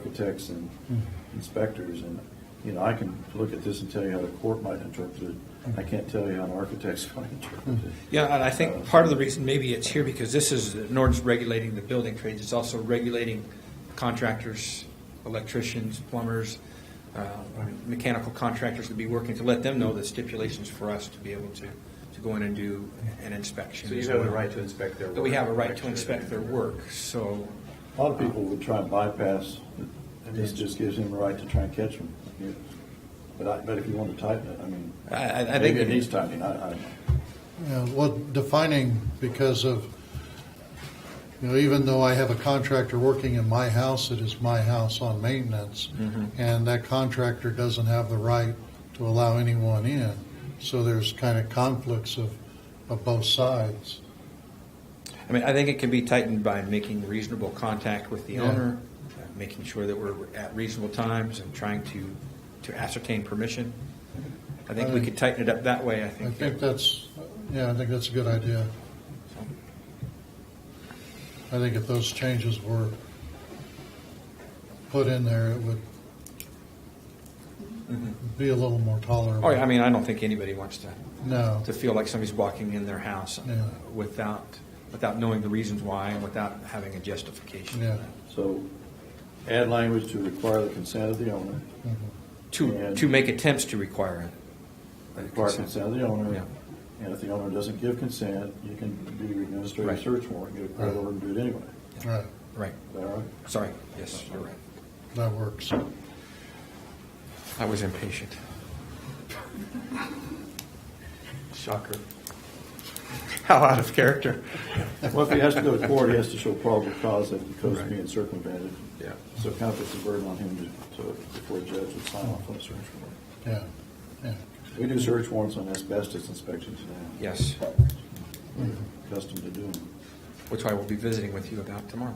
architects and inspectors, and, you know, I can look at this and tell you how the court might interpret it. I can't tell you how an architect's going to interpret it. Yeah, and I think part of the reason maybe it's here because this is an ordinance regulating the building trades. It's also regulating contractors, electricians, plumbers, uh, mechanical contractors to be working, to let them know the stipulations for us to be able to, to go in and do an inspection. So you as have the well. right to inspect their work. But we have a right to inspect their work, so, A lot of people would try and bypass, and this just gives him a right to try and catch them. But I, but if you want to tighten it, I mean, I- I, I think. maybe it needs tightening, I, I don't know. Yeah, well, defining because of, you know, even though I have a contractor working in my house, it is my house on maintenance. Mm-hmm. And that contractor doesn't have the right to allow anyone in. So there's kind of conflicts of, of both sides. I mean, I think it can be tightened by making reasonable contact with the Yeah. owner, uh, making sure that we're at reasonable times and trying to, to ascertain permission. I think we could tighten it up that way, I Uh, I think. think that's, yeah, I think that's a good idea. I think if those changes were put in there, it would be a little more tolerable. Mm-hmm. Oh, yeah, I mean, I don't think anybody wants to, No, to feel like somebody's walking in their house uh, Yeah. without, without knowing the reasons why and without having a justification. yeah, So add language to require the consent of the owner, Mm-hmm. To, And- to make attempts to require it. require consent of the owner. Yeah. And if the owner doesn't give consent, you can do your administrative Right. search warrant, get a court Right. order and do it anyway. right, Right, Is that all right? sorry, yes, you're right. that works. I was impatient. Shocker. How out of character. Well, if he has to go to court, he has to show probable cause that the code's being circumvented. Yeah. So it kind of puts a burden on him to, to, before a judge would sign off on a search warrant. Yeah, yeah, We do search warrants on asbestos inspections now. Yes, Accustomed to doing them. which I will be visiting with you about tomorrow.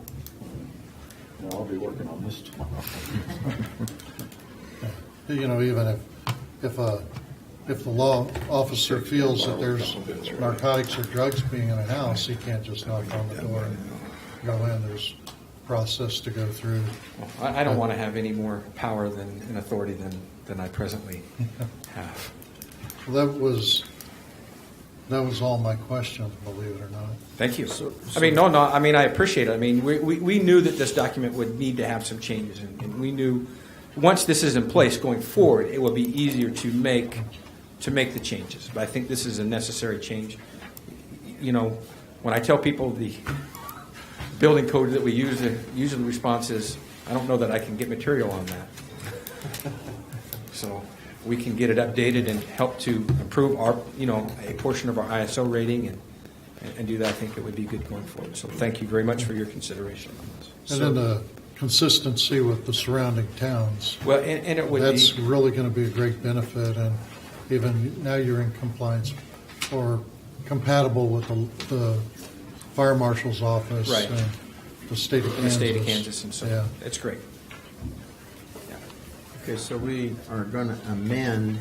And I'll be working on this tomorrow. you know, even if, if a, if the law officer feels that there's narcotics or drugs being in a house, he can't just knock on the door and go in, there's process to go through. I, I don't want to have any more power than, and authority than, than I presently have. That was, that was all my questions, believe it or not. Thank you. I mean, no, no, I mean, I appreciate it. I mean, we, we, we knew that this document would need to have some changes, and, and we knew, once this is in place going forward, it will be easier to make, to make the changes. But I think this is a necessary change. You know, when I tell people the building code that we use, the usually the response is, I don't know that I can get material on that. So we can get it updated and help to improve our, you know, a portion of our ISO rating and, and do that, I think it would be good going forward. So thank you very much for your consideration on this. And then the consistency with the surrounding towns. Well, and, and it would That's be, really going to be a great benefit, and even now you're in compliance or compatible with the, the fire marshal's office. Right. and The state of in the Kansas. state of Kansas and so, Yeah, it's great. Okay, so we are going to amend,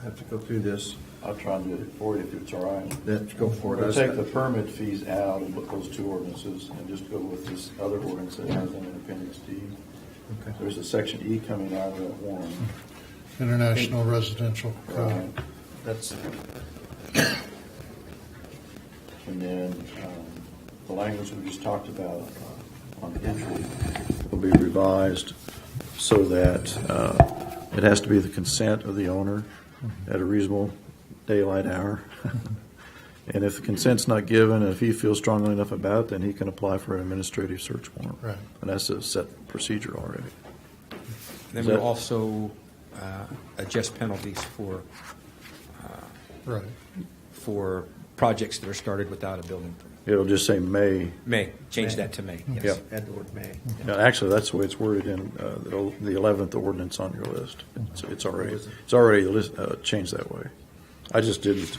I have to go through this, I'll try and do it for you if it's all right. let's go for We'll it. take the permit fees out and put those two ordinances and just go with this other ordinance that has them in appendix D. Okay. There's a section E coming out of that one. International Residential right? Code. That's, And then um, the language we just talked about uh, on entry will be revised so that uh, it has to be the consent of the owner at a reasonable daylight hour. And if the consent's not given, if he feels strongly enough about it, then he can apply for an administrative search warrant. Right. And that's a set procedure already. Then Is we'll that- also uh, adjust penalties for, Right, for projects that are started without a building permit. It'll just say may. May, change that to May, yes. Yep. add the word may. Now, Actually, that's the way it's worded in uh, the el- the 11th ordinance on your list. It's- It's already, it's already lis- uh, changed that way. I just didn't,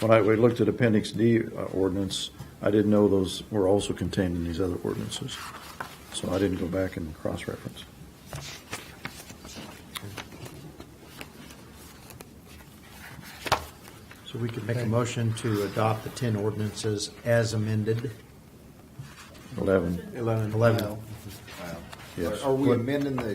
when I, we looked at Appendix D uh, ordinance, I didn't know those were also contained in these other ordinances. So I didn't go back and cross-reference. So we could make a motion to adopt the 10 ordinances as amended. 11. 11. 11. Yes. Are we amending the